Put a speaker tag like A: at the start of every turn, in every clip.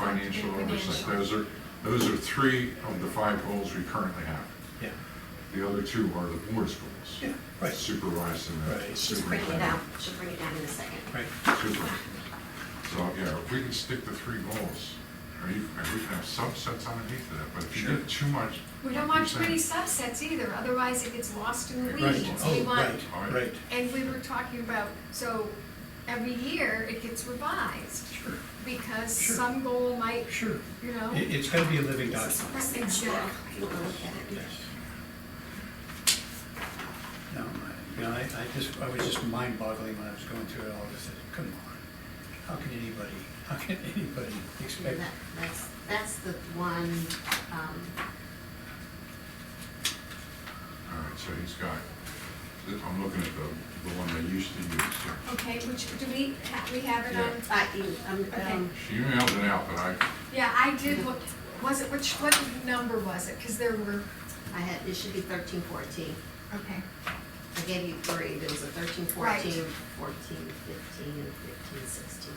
A: financial oversight. Those are, those are three of the five goals we currently have.
B: Yeah,
A: The other two are the board's goals.
B: Yeah, right.
A: Supervised and
B: Right.
A: the
B: Just
C: She's bringing it
A: superintendent.
C: down, she'll bring it down in a second.
B: right.
A: Super. So, yeah, if we can stick to three goals, or you, or we can have subsets underneath of that, but if you
B: Sure.
A: get too much.
D: We
A: like
D: don't want
A: you're
D: too many
A: saying,
D: subsets either, otherwise it gets lost in the
B: Right,
D: weeds. We
B: oh,
D: want-
B: right, right,
D: And we were talking about, so every year it gets revised,
B: sure,
D: because
B: Sure.
D: some goal might,
B: sure.
D: you know.
B: It, it's gonna be a living document,
C: This is
D: Exactly.
C: small, if you wanna look at
B: yes.
C: it.
B: No, I- you know, I, I just, I was just mind boggling when I was going through it all, I said, come on. How can anybody, how can anybody
C: Yeah,
B: expect?
C: that- That's, that's the one, um,
A: All right, so he's got, I'm looking at the, the one they used to use. here.
D: Okay, which, do we, ha- we have it on,
C: I, you, um,
D: Okay.
C: um,
A: She emailed it out, but I,
D: yeah, I did look, was it, which, what number was it? Because there were,
C: I had, it should be thirteen fourteen.
D: okay,
C: I gave you three, there was a thirteen
D: Right.
C: fourteen, fourteen fifteen, and fifteen sixteen.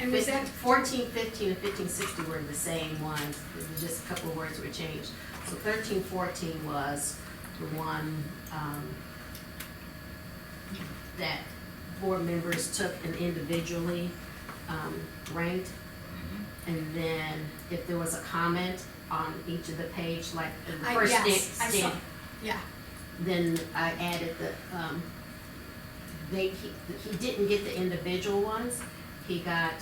D: and was that?
C: Fourteen fifteen and fifteen sixty were the same ones, it was just a couple of words were changed. So thirteen fourteen was the one, um, that board members took and individually, um, ranked.
A: mhm.
C: And then if there was a comment on each of the page, like in the
D: I-
C: first stand,
D: yes, I saw-
C: stand,
D: Yeah,
C: then I added the, um, they, he, he didn't get the individual ones. He got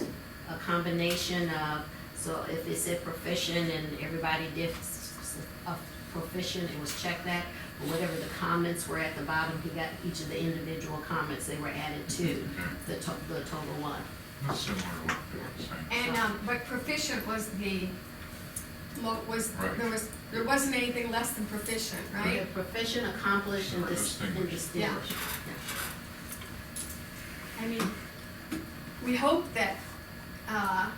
C: a combination of, so if it said proficient and everybody did s- s- a proficient, it was check that. But whatever the comments were at the bottom, he got each of the individual comments, they were added to
A: Okay.
C: the to, the total one.
A: That's similar to what they were saying.
D: and, um, but proficient was the, lo- was,
A: Right.
D: there was, there wasn't anything less than proficient, right?
C: Yeah, Proficient, accomplished, and dis- and
A: Distinguished.
C: distinguished.
D: Yeah. I mean, we hope that, uh,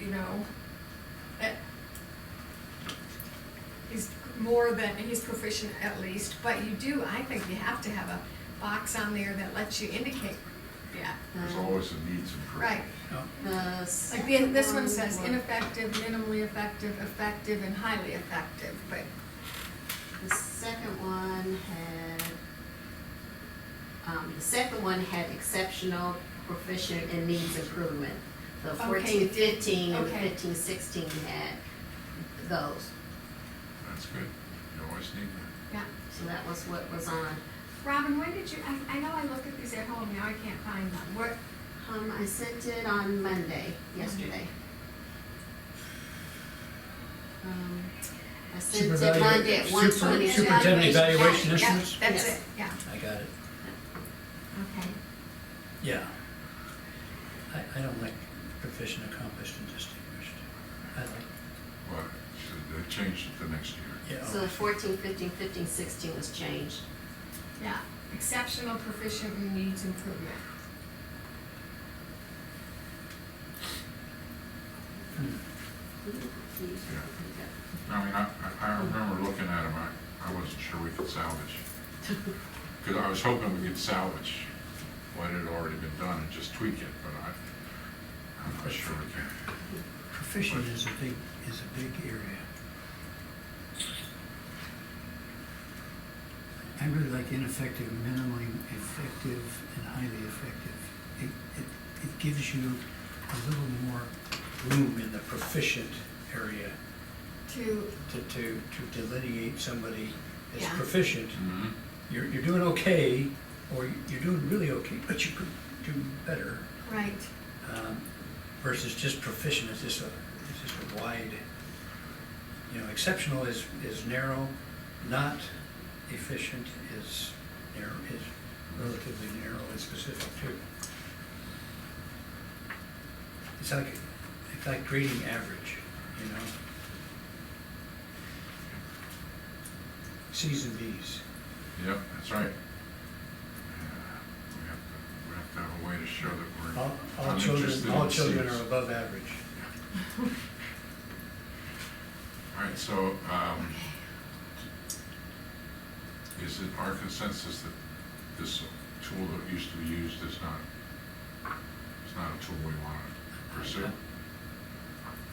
D: you know, that he's more than, he's proficient at least, but you do, I think you have to have a box on there that lets you indicate, yeah.
A: There's
C: Um,
A: always a needs improvement.
D: Right,
B: No,
C: The
D: like the-
C: Uh, second
D: this one says
C: was-
D: ineffective, minimally effective, effective, and highly effective, but,
C: The second one had, um, the second one had exceptional, proficient, and needs improvement. The
D: Okay.
C: fourteen fifteen and
D: Okay.
C: fifteen sixteen had those,
A: That's good. You always need that.
D: yeah.
C: so that was what was on.
D: Robin, when did you, I, I know I looked at these at home, now I can't find them, what,
C: Um, I sent it on Monday, yesterday. Um, I sent it
B: Supervalu-
C: Monday at one
B: super-
C: twenty.
B: superintendent evaluation
D: Yeah,
B: issues?
D: That's
C: Yes.
D: it, yeah,
B: I got it,
D: okay.
B: yeah. I, I don't like proficient, accomplished, and distinguished. I like,
A: But should they change it the next year?
B: yeah. Oh.
C: So fourteen fifteen, fifteen sixteen was changed.
D: Yeah, exceptional proficient and needs improvement.
B: Hmm.
A: I mean, I, I- I remember looking at them, I, I wasn't sure we could salvage. Because I was hoping we could salvage what had already been done and just tweak it, but I, I'm not sure we can.
B: Proficient is a big, is a big area. I really like ineffective, minimally effective, and highly effective. It, it, it gives you a little more room in the proficient area
D: To,
B: to, to, to delineate somebody as
D: Yeah.
B: proficient. You're, you're doing okay, or you're doing really okay, but you could do better,
D: right,
B: um, versus just proficient, it's just a, it's just a wide, you know, exceptional is, is narrow, not efficient is narrow, is relatively narrow and specific too. It's like, it's like grading average, you know? Cs and Ds.
A: Yep, that's right. Yeah, We have to, we have to have a way to show that
B: All,
A: we're
B: all children,
A: uninterested
B: all
A: in
B: children
A: Cs.
B: are above average.
A: All right, so, um, is it our consensus that this tool that used to be used is not, is not a tool we want to pursue?
B: I-